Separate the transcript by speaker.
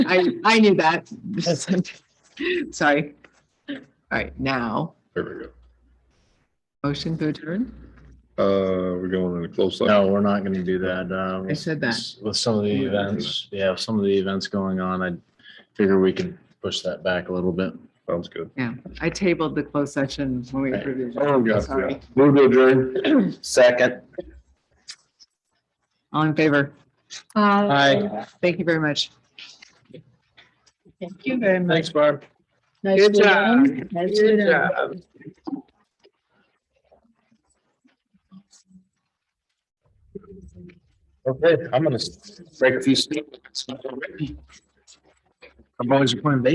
Speaker 1: I, I knew that. Sorry. All right, now,
Speaker 2: There we go.
Speaker 1: motion to adjourn?
Speaker 2: Uh, we're going in a close. session.
Speaker 3: No, we're not gonna do that. Um,
Speaker 1: I said that.
Speaker 3: With some of the events, yeah, with some of the events going on, I figure we could push that back a little bit.
Speaker 2: Sounds good.
Speaker 1: Yeah, I tabled the closed session when we approved it.
Speaker 2: Oh, God,
Speaker 1: Sorry.
Speaker 2: yeah. Move to adjourn. Second.
Speaker 1: All in favor?
Speaker 3: Hi,
Speaker 1: Thank you very much.
Speaker 4: Thank you very much.
Speaker 3: thanks, Barb.
Speaker 4: Nice
Speaker 1: Good
Speaker 4: to
Speaker 1: job.
Speaker 4: know. Nice to know.
Speaker 2: Okay, I'm gonna break a few. I'm always playing baseball.